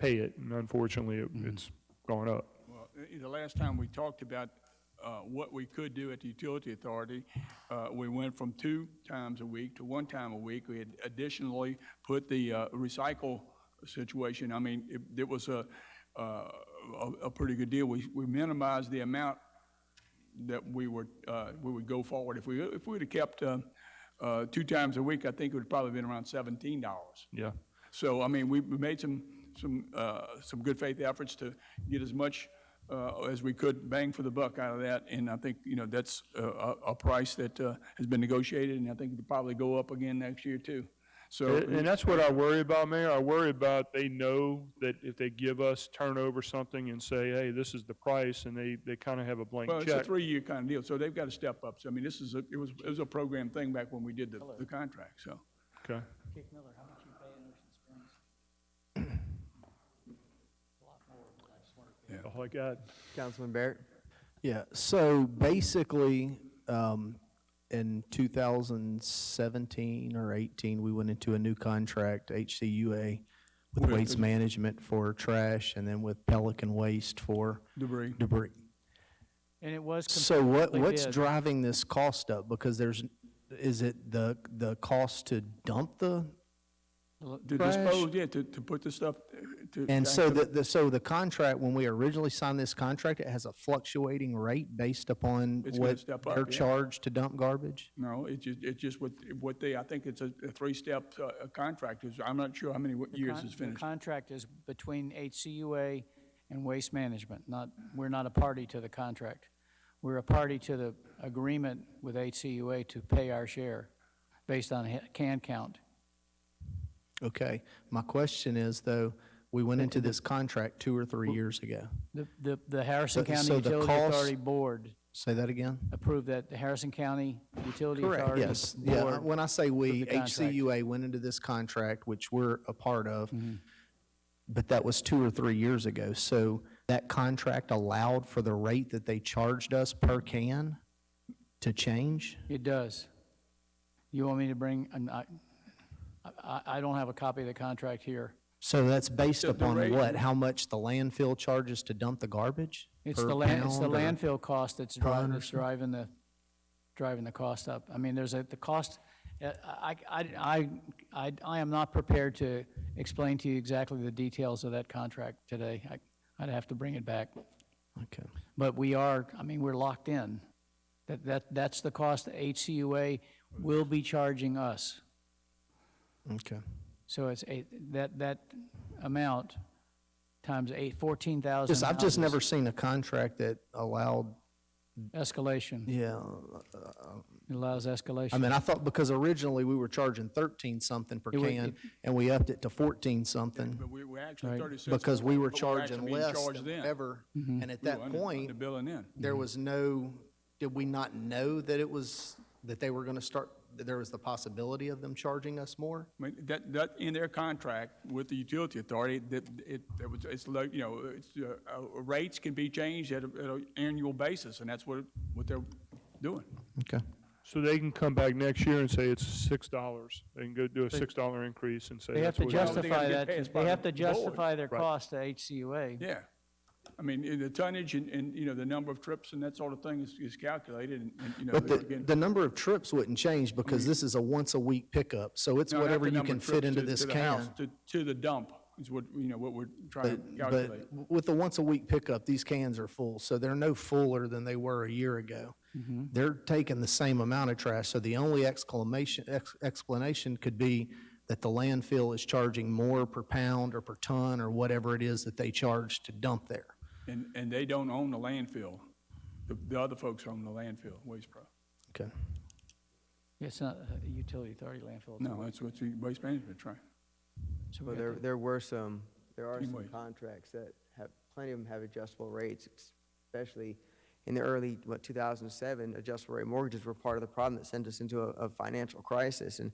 pay it, and unfortunately, it- Mm-hmm. Mhm. it's gone up. Well, i- the last time we talked about uh, what we could do at the utility authority, uh, we went from two times a week to one time a week. We had additionally put the uh, recycle situation, I mean, it it was a, uh, a a pretty good deal. We we minimized the amount that we were, uh, we would go forward. If we, if we'd have kept uh, uh, two times a week, I think it would probably been around $17. Yeah. So, I mean, we we made some, some, uh, some good faith efforts to get as much uh, as we could bang for the buck out of that, and I think, you know, that's a, a a price that uh, has been negotiated, and I think it'll probably go up again next year, too. So, And and that's what I worry about, Mayor. I worry about they know that if they give us, turn over something and say, hey, this is the price, and they, they kind of have a blank well, it's a check. three-year kind of deal, so they've got to step up. So, I mean, this is, a it was, it was a program thing back when we did the, the contract, so. Okay. Dick Miller, how much you pay in Ocean Springs? A lot more than I just wanted to be. All I got. Councilman Barrett? Yeah, so basically, um, in two thousand seventeen or eighteen, we went into a new contract, HCUA, with With- Waste Management for trash and then with Pelican Waste for Debris. debris. And it was. So what, competitively what's bid. driving this cost up? Because there's, is it the, the cost to dump the? To Trash. dispose, yeah, to, to put the stuff, uh, to. back And so to the- the, the, so the contract, when we originally signed this contract, it has a fluctuating rate based upon It's gonna what step up, they're yeah. charged to dump garbage? No, it's just, it's just what, what they, I think it's a a three-step uh, uh, contract. It's- I'm not sure how many what The years con- it's finished. The contract is between HCUA and Waste Management, not, we're not a party to the contract. We're a party to the agreement with HCUA to pay our share based on ha- can count. Okay, my question is though, we went into this contract two or three years ago. The, the, the Harrison So- so County the Utility cost- Authority Board Say that again? approved that, the Harrison County Utility Correct, Authority yes. Yeah, Board when I say we, the contract. HCUA went into this contract, which we're a part of, Mm-hmm. but that was two or three years ago. So that contract allowed for the rate that they charged us per can to change? It does. You want me to bring, I'm not- I, I, I don't have a copy of the contract here. So that's based The- the upon rate- what? How much the landfill charges to dump the garbage? It's Per the land, it's the pound or- landfill cost that's driving, ton or that's driving the, driving the cost up. I mean, there's a, the cost, uh, I, I, I, I- I am not prepared to explain to you exactly the details of that contract today. I, I'd have to bring it back. Okay. But we are, I mean, we're locked in. That, that, that's the cost that HCUA will be charging us. Okay. So it's eight, that, that amount times eight, fourteen Just, thousand. I've just never seen a contract that allowed, Escalation, yeah, It allows escalation. I mean, I thought, because originally we were charging thirteen something per It would- can, it- and we upped it to fourteen something, But we were actually Right. 30 cents. because we were but actually charging being less charged than then. ever. Mm-hmm. And at We were that under- point, Under billing in. there was no, did we not know that it was, that they were gonna start, that there was the possibility of them charging us more? I mean, that, that, in their contract with the utility authority, that, it, that was, it's like, you know, it's, uh, uh, rates can be changed at, a- at an annual basis, and that's what, what they're doing. Okay. So they can come back next year and say it's six dollars. They can go do a six dollar increase and say They have that's to what. it is. Well, they gotta justify get that, passed by they have the to board. justify their Right. cost to HCUA. Yeah. I mean, in the tonnage and, and, you know, the number of trips and that sort of thing is, is calculated, and, and, you know. But the, again- the number of trips wouldn't change, because this is a once-a-week pickup, so it's No, not whatever the you number can of fit trips into to- this to the house, can. To, to the dump is what, you know, what we're trying to But, but calculate. with the once-a-week pickup, these cans are full, so they're no fuller than they were a year ago. Mm-hmm. They're taking the same amount of trash, so the only exclamation, ex- explanation could be that the landfill is charging more per pound or per ton or whatever it is that they charge to dump there. And, and they don't own the landfill. The, the other folks own the landfill, Waste Pro. Okay. It's not a utility authority landfill. No, that's what the Waste Management trying. So we Well, got there, the- there were some, there are some Teamwork. contracts that have, plenty of them have adjustable rates, especially in the early, what, 2007, adjustable rate mortgages were part of the problem that sent us into a, a financial crisis. And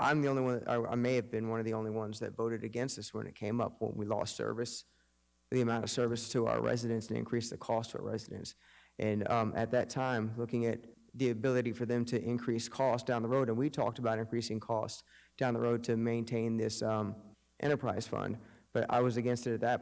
I'm the only one, I, I may have been one of the only ones that voted against this when it came up, when we lost service, the amount of service to our residents and increased the cost to our residents. And um, at that time, looking at the ability for them to increase costs down the road, and we talked about increasing costs down the road to maintain this um, enterprise fund. But I was against it at that